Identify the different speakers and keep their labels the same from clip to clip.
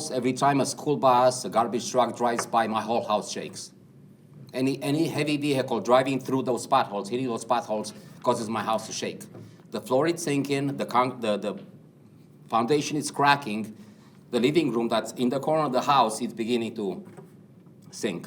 Speaker 1: house, every time a school bus, a garbage truck drives by, my whole house shakes. Any, any heavy vehicle driving through those potholes, hitting those potholes, causes my house to shake. The floor is sinking, the, con- the, the foundation is cracking, the living room that's in the corner of the house is beginning to sink.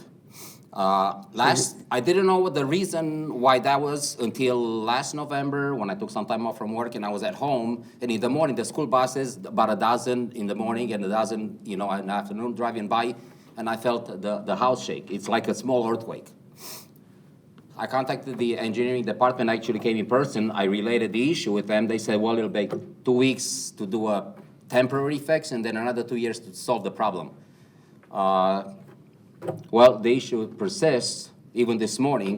Speaker 1: Uh, last, I didn't know what the reason why that was until last November when I took some time off from work and I was at home. And in the morning, the school buses, about a dozen in the morning and a dozen, you know, in the afternoon driving by, and I felt the, the house shake. It's like a small earthquake. I contacted the engineering department, actually came in person. I related the issue with them. They said, well, it'll take two weeks to do a temporary fix and then another two years to solve the problem. Uh, Well, the issue persists even this morning.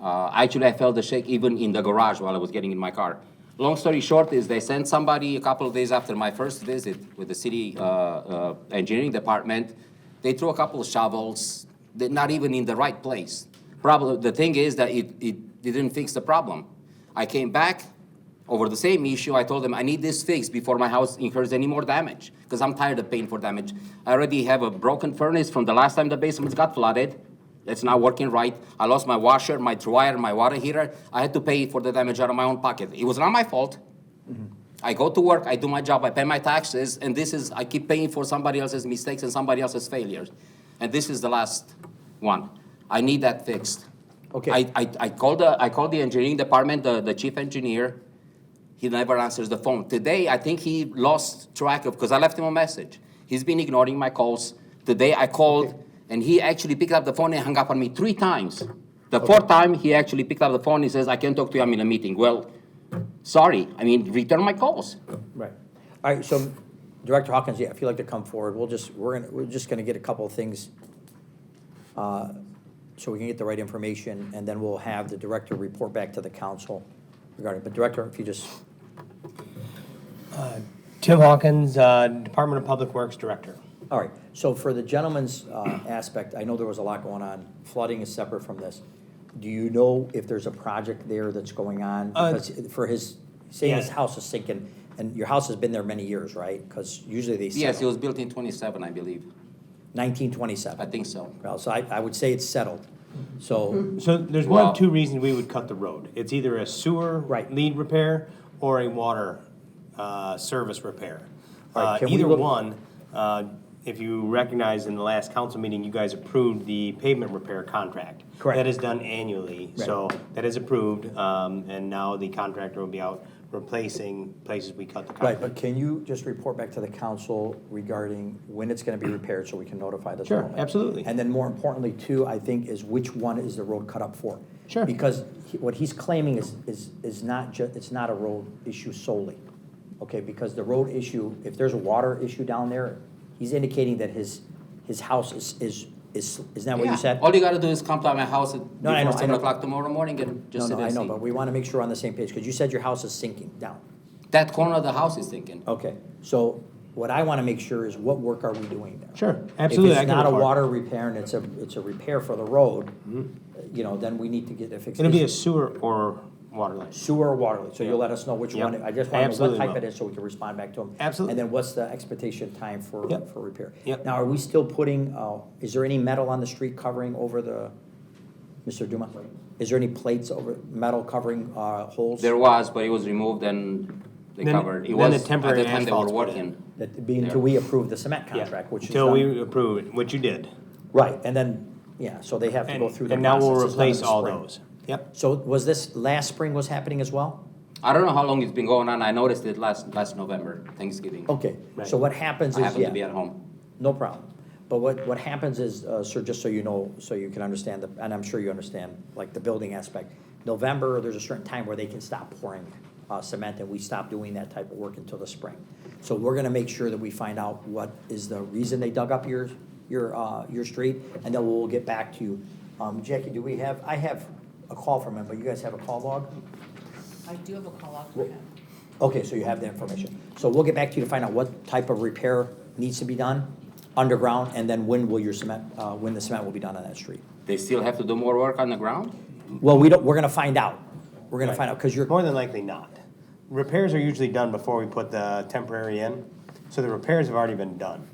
Speaker 1: Uh, Actually, I felt the shake even in the garage while I was getting in my car. Long story short is they sent somebody a couple of days after my first visit with the city uh, uh, engineering department. They threw a couple of shovels, they're not even in the right place. Problem, the thing is that it, it didn't fix the problem. I came back over the same issue. I told them I need this fixed before my house incurs any more damage because I'm tired of paying for damage. I already have a broken furnace from the last time the basement got flooded. It's not working right. I lost my washer, my dryer, my water heater. I had to pay for the damage out of my own pocket. It was not my fault. I go to work, I do my job, I pay my taxes, and this is, I keep paying for somebody else's mistakes and somebody else's failures. And this is the last one. I need that fixed.
Speaker 2: Okay.
Speaker 1: I, I, I called the, I called the engineering department, the, the chief engineer. He never answers the phone. Today, I think he lost track of, because I left him a message. He's been ignoring my calls. Today, I called, and he actually picked up the phone and hung up on me three times. The fourth time, he actually picked up the phone, he says, I can't talk to you, I'm in a meeting. Well, sorry, I mean, return my calls.
Speaker 2: Right. All right, so Director Hawkins, yeah, if you'd like to come forward, we'll just, we're gonna, we're just gonna get a couple of things uh, so we can get the right information, and then we'll have the director report back to the council regarding, but Director, if you just,
Speaker 3: Tim Hawkins, uh, Department of Public Works Director.
Speaker 2: all right. So for the gentleman's uh, aspect, I know there was a lot going on. Flooding is separate from this. Do you know if there's a project there that's going on?
Speaker 3: Uh,
Speaker 2: Because for his, saying his
Speaker 3: yeah.
Speaker 2: house is sinking, and your house has been there many years, right? Because usually they
Speaker 1: Yes, it
Speaker 2: settle.
Speaker 1: was built in twenty-seven, I believe.
Speaker 2: Nineteen
Speaker 1: I
Speaker 2: twenty-seven.
Speaker 1: think so.
Speaker 2: Well, so I, I would say it's settled.
Speaker 3: Mm-hmm.
Speaker 2: So,
Speaker 3: So there's one
Speaker 1: Wow.
Speaker 3: of two reasons we would cut the road. It's either a sewer
Speaker 2: Right.
Speaker 3: lead repair or a water uh, service repair.
Speaker 2: All right,
Speaker 3: Uh,
Speaker 2: can we
Speaker 3: Either
Speaker 2: look-
Speaker 3: one, uh, if you recognize in the last council meeting, you guys approved the pavement repair contract.
Speaker 2: Correct.
Speaker 3: That is done annually, so that is approved, um, and now the contractor will be out replacing places we cut the
Speaker 1: Mm-hmm.
Speaker 2: right,
Speaker 3: contract.
Speaker 2: but can you just report back to the council regarding when it's gonna be repaired so we can notify the
Speaker 3: Sure,
Speaker 2: department?
Speaker 3: absolutely.
Speaker 2: And then more importantly too, I think, is which one is the road cut up for?
Speaker 3: Sure.
Speaker 2: Because he- what he's claiming is, is, is not ju, it's not a road issue solely. Okay, because the road issue, if there's a water issue down there, he's indicating that his, his house is, is, is, isn't that what you
Speaker 1: Yeah.
Speaker 2: said?
Speaker 1: All you gotta do is come to my house at
Speaker 2: No, I
Speaker 1: before
Speaker 2: know, I
Speaker 1: seven
Speaker 2: know.
Speaker 1: o'clock tomorrow morning and
Speaker 2: No,
Speaker 1: just E. sit
Speaker 2: no,
Speaker 1: and
Speaker 2: I know,
Speaker 1: see.
Speaker 2: but we wanna make sure we're on the same page, because you said your house is sinking down.
Speaker 1: That corner of the house is thinking.
Speaker 2: Okay, so what I want to make sure is what work are we doing there?
Speaker 3: Sure, absolutely,
Speaker 2: If
Speaker 3: I
Speaker 2: it's
Speaker 3: can
Speaker 2: not a
Speaker 3: report.
Speaker 2: water repair and it's a, it's a repair for the road, you know, then we need to get it fixed.
Speaker 3: Mm-hmm. It'll be a sewer or water line.
Speaker 2: Sewer or water, leak, so you'll let us know which
Speaker 3: Yeah.
Speaker 2: one, I just want to
Speaker 3: I
Speaker 2: know what
Speaker 3: absolutely
Speaker 2: type it
Speaker 3: will.
Speaker 2: is so we can respond back to them.
Speaker 3: Absolutely.
Speaker 2: And then what's the expectation time for,
Speaker 3: Yep.
Speaker 2: for repair?
Speaker 3: Yep.
Speaker 2: Now, are we still putting, uh, is there any metal on the street covering over the, Mr. Duma? Is there any plates over, metal covering uh, holes?
Speaker 1: There was, but it was removed and they
Speaker 3: Then-
Speaker 1: covered. It
Speaker 3: then
Speaker 1: was,
Speaker 3: the
Speaker 1: at
Speaker 3: temporary
Speaker 1: the time they were
Speaker 3: asphalt's put in.
Speaker 1: working.
Speaker 2: That, being until we approve the cement
Speaker 3: Yeah,
Speaker 2: contract, which is
Speaker 3: Till
Speaker 2: done.
Speaker 3: we approve it, which you did.
Speaker 2: Right, and then, yeah, so they have to
Speaker 3: And
Speaker 2: go through the
Speaker 3: and now
Speaker 2: process.
Speaker 3: we'll
Speaker 2: It's done in
Speaker 3: replace
Speaker 2: the
Speaker 3: all
Speaker 2: spring.
Speaker 3: those. Yep.
Speaker 2: So was this, last spring was happening as well?
Speaker 1: I don't know how long it's been going on. I noticed it last, last November, Thanksgiving.
Speaker 3: Oh,
Speaker 2: Okay, so
Speaker 3: Right.
Speaker 2: what happens
Speaker 1: I
Speaker 2: is,
Speaker 1: happened to be
Speaker 2: yeah,
Speaker 1: at home.
Speaker 2: no problem. But what, what happens is, uh, sir, just so you know, so you can understand, the and I'm sure you understand, like the building aspect. November, there's a certain time where they can stop pouring uh, cement, and we stop doing that type of work until the spring. So we're gonna make sure that we find out what is the reason they dug up your, your, uh, your street, and then we'll get back to you. Um, Jackie, do we have, I have a call from him, but you guys have a call log?
Speaker 4: I do have a call out for him.
Speaker 2: Okay, so you have the information. So we'll get back to you to find out what type of repair needs to be done underground, and then when will your cement, uh, when the cement will be done on that street?
Speaker 1: They still have to do more work on the ground?
Speaker 2: Well, we don't, we're gonna find out. We're gonna find out, because you're,
Speaker 3: More than likely not. Repairs are usually done before we put the temporary in, so the repairs have already been done.